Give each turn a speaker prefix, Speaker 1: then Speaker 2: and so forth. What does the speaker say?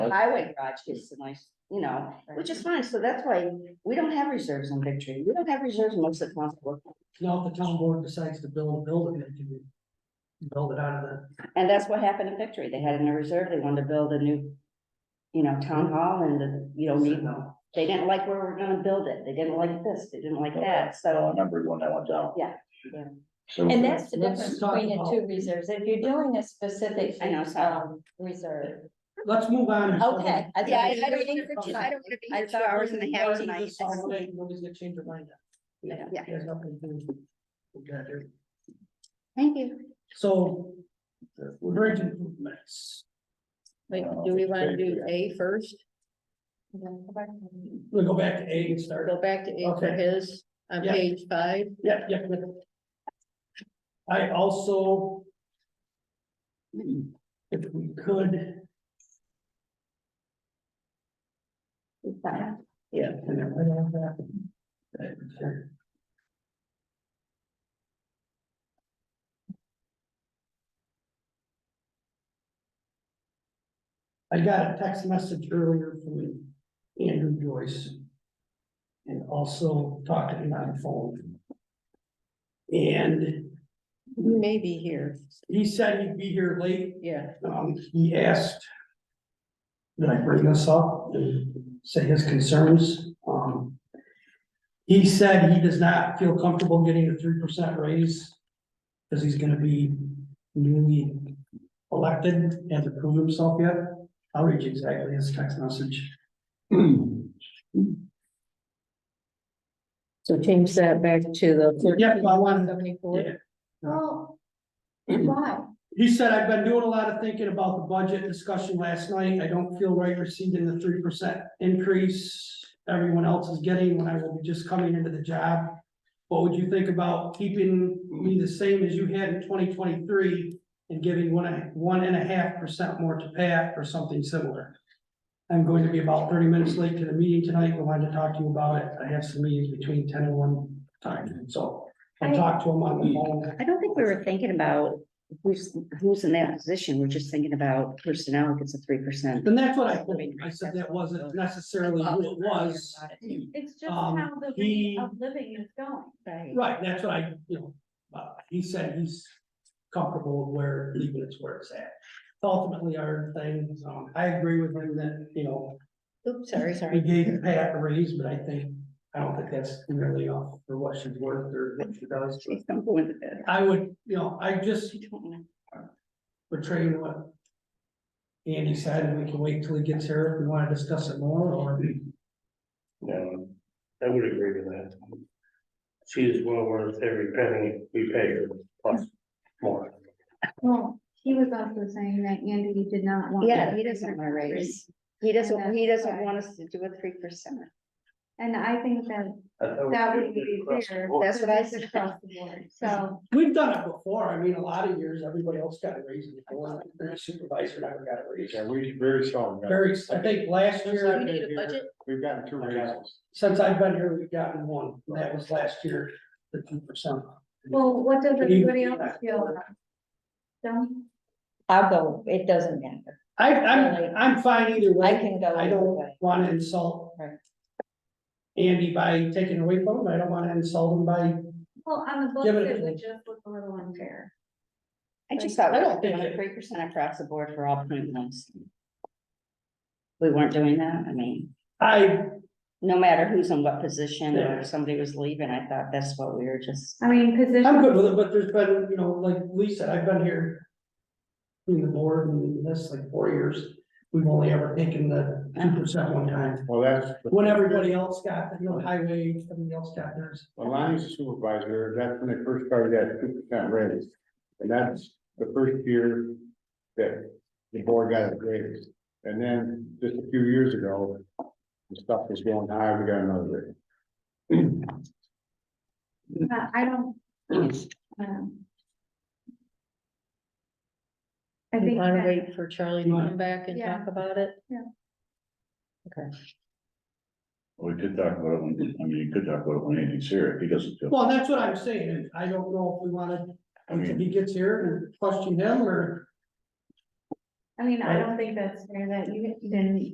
Speaker 1: highway garage gets a nice, you know, which is fine, so that's why we don't have reserves in Victory, we don't have reserves in most of the council.
Speaker 2: Now, if the town board decides to build a building, it can be build it out of the,
Speaker 1: And that's what happened in Victory, they had in a reserve, they wanted to build a new, you know, town hall and, the- you don't need,
Speaker 2: no,
Speaker 1: they didn't like where we're gonna build it, they didn't like this, they didn't like that,
Speaker 3: I
Speaker 1: so.
Speaker 3: remember when I went down.
Speaker 1: Yeah, yeah.
Speaker 3: So-
Speaker 4: And that's the
Speaker 2: Let's
Speaker 4: difference
Speaker 2: talk
Speaker 4: between the
Speaker 2: about-
Speaker 4: two reserves. If you're doing a specific,
Speaker 1: I know, sorry.
Speaker 4: um, reserve,
Speaker 2: let's move on.
Speaker 4: okay. I
Speaker 1: Yeah, I, I
Speaker 4: think
Speaker 1: don't, I
Speaker 4: we're
Speaker 1: don't
Speaker 4: waiting for
Speaker 1: wanna
Speaker 4: Chuck.
Speaker 1: be here two hours and a half tonight.
Speaker 2: Nobody's gonna change their mind.
Speaker 1: Yeah, yeah.
Speaker 2: There's nothing to do. We gotta do.
Speaker 1: thank you.
Speaker 2: So, bridge improvements,
Speaker 5: Wait, do we wanna do A first?
Speaker 2: we'll go back to A and start.
Speaker 5: Go back to A for
Speaker 2: Okay.
Speaker 5: his, on
Speaker 2: Yeah.
Speaker 5: page five,
Speaker 2: Yeah, yeah. yeah. I also. If we could, yeah. and then right on that, that was there. I got a text message earlier from Andrew Joyce. And also talked to him on the phone. And
Speaker 5: he may be here,
Speaker 2: he said he'd be here late,
Speaker 5: yeah,
Speaker 2: um, he asked. That I bring this up and say his concerns, um. He said he does not feel comfortable getting a three percent raise. Cause he's gonna be newly elected, hasn't proved himself yet. I'll read you exactly his text message.
Speaker 5: so change that back to the.
Speaker 2: Yeah, I wanted to-
Speaker 5: Seventy-four.
Speaker 4: Well, why?
Speaker 2: He said, I've been doing a lot of thinking about the budget discussion last night. I don't feel right receiving the three percent increase everyone else is getting when I will be just coming into the job. What would you think about keeping me the same as you had in twenty twenty-three and giving one, and- one and a half percent more to Pat or something similar? I'm going to be about thirty minutes late to the meeting tonight. We wanted to talk to you about it. I have some meetings between ten and one time, so I talked to him on the phone.
Speaker 1: I don't think we were thinking about who's, who's in that position, we're just thinking about personnel gets a three percent.
Speaker 2: And that's what I told him. I said that wasn't necessarily who it was.
Speaker 4: It's just
Speaker 2: Um,
Speaker 4: how the
Speaker 2: he-
Speaker 4: rate of living is going.
Speaker 1: Right.
Speaker 2: Right, that's what I, you know, uh, he said he's comfortable with where, leaving it's where it's at. Ultimately, our thing, um, I agree with him that, you know,
Speaker 5: Oops, sorry,
Speaker 2: we
Speaker 5: sorry,
Speaker 2: gave Pat a raise, but I think, I don't think that's nearly off for what she's worth or what she does.
Speaker 1: Please don't go into that.
Speaker 2: I would, you know, I just
Speaker 1: I don't wanna-
Speaker 2: portrayed what Andy said, and we can wait till he gets here if we wanna discuss it more, or
Speaker 6: No, I would agree with that. She is well worth every penny we pay her, plus more.
Speaker 7: Well, he was also saying that Andy did not want.
Speaker 1: Yeah, he doesn't want a raise. He doesn't, he doesn't want us to do a three percent.
Speaker 7: And I think that that would be fair.
Speaker 1: That's what I
Speaker 7: because it's
Speaker 1: said.
Speaker 7: Across the board, so,
Speaker 2: We've done it before, I mean, a lot of years, everybody else got a raise before, their supervisor never got a raise.
Speaker 3: Yeah, we, very strong.
Speaker 2: Very, I think last
Speaker 5: So
Speaker 2: year,
Speaker 5: we need a budget?
Speaker 3: We've gotten two raises.
Speaker 2: since I've been here, we've gotten one, and that was last year, the two percent.
Speaker 7: well, what does
Speaker 2: Can you-
Speaker 7: everybody else feel? about? Don't,
Speaker 4: I'll go, it doesn't matter.
Speaker 2: I, I'm,
Speaker 4: Really?
Speaker 2: I'm fine either
Speaker 4: I
Speaker 2: way,
Speaker 4: can go
Speaker 2: I
Speaker 4: either
Speaker 2: don't
Speaker 4: way.
Speaker 2: wanna insult
Speaker 4: Right.
Speaker 2: Andy by taking away from him, I don't wanna insult him by,
Speaker 7: well, on the books,
Speaker 2: Give it a-
Speaker 7: it would just look a little unfair.
Speaker 1: I just thought we
Speaker 2: I don't
Speaker 1: were doing
Speaker 2: think it-
Speaker 1: three percent across the board for all point ones. We weren't doing that, I mean,
Speaker 2: I,
Speaker 1: no matter who's in what position or if somebody was leaving, I thought that's what we were just.
Speaker 7: I mean,
Speaker 2: I'm
Speaker 7: position,
Speaker 2: good with it, but there's been, you know, like Lee said, I've been here in the board and this like four years, we've only ever taken the two percent one time.
Speaker 3: Well, that's.
Speaker 2: When everybody else got, you know, highway, everybody else got theirs.
Speaker 3: When Lonnie's a supervisor, that's when they first started that two percent raise. And that's the first year that the board got a raise. And then just a few years ago, the stuff was going high, we got another raise.
Speaker 7: uh, I don't, um. I
Speaker 5: you
Speaker 7: think
Speaker 5: wanna
Speaker 7: that,
Speaker 5: wait for Charlie to come back and
Speaker 7: Yeah.
Speaker 5: talk about it?
Speaker 8: We could talk about it, when- I mean, you could talk about it when Andy's here, if he doesn't feel,
Speaker 2: Well, that's what I'm saying, and I don't know if we wanna,
Speaker 8: I
Speaker 2: if
Speaker 8: mean,
Speaker 2: he gets here and question him or.
Speaker 7: I mean, I don't think that's fair that you didn't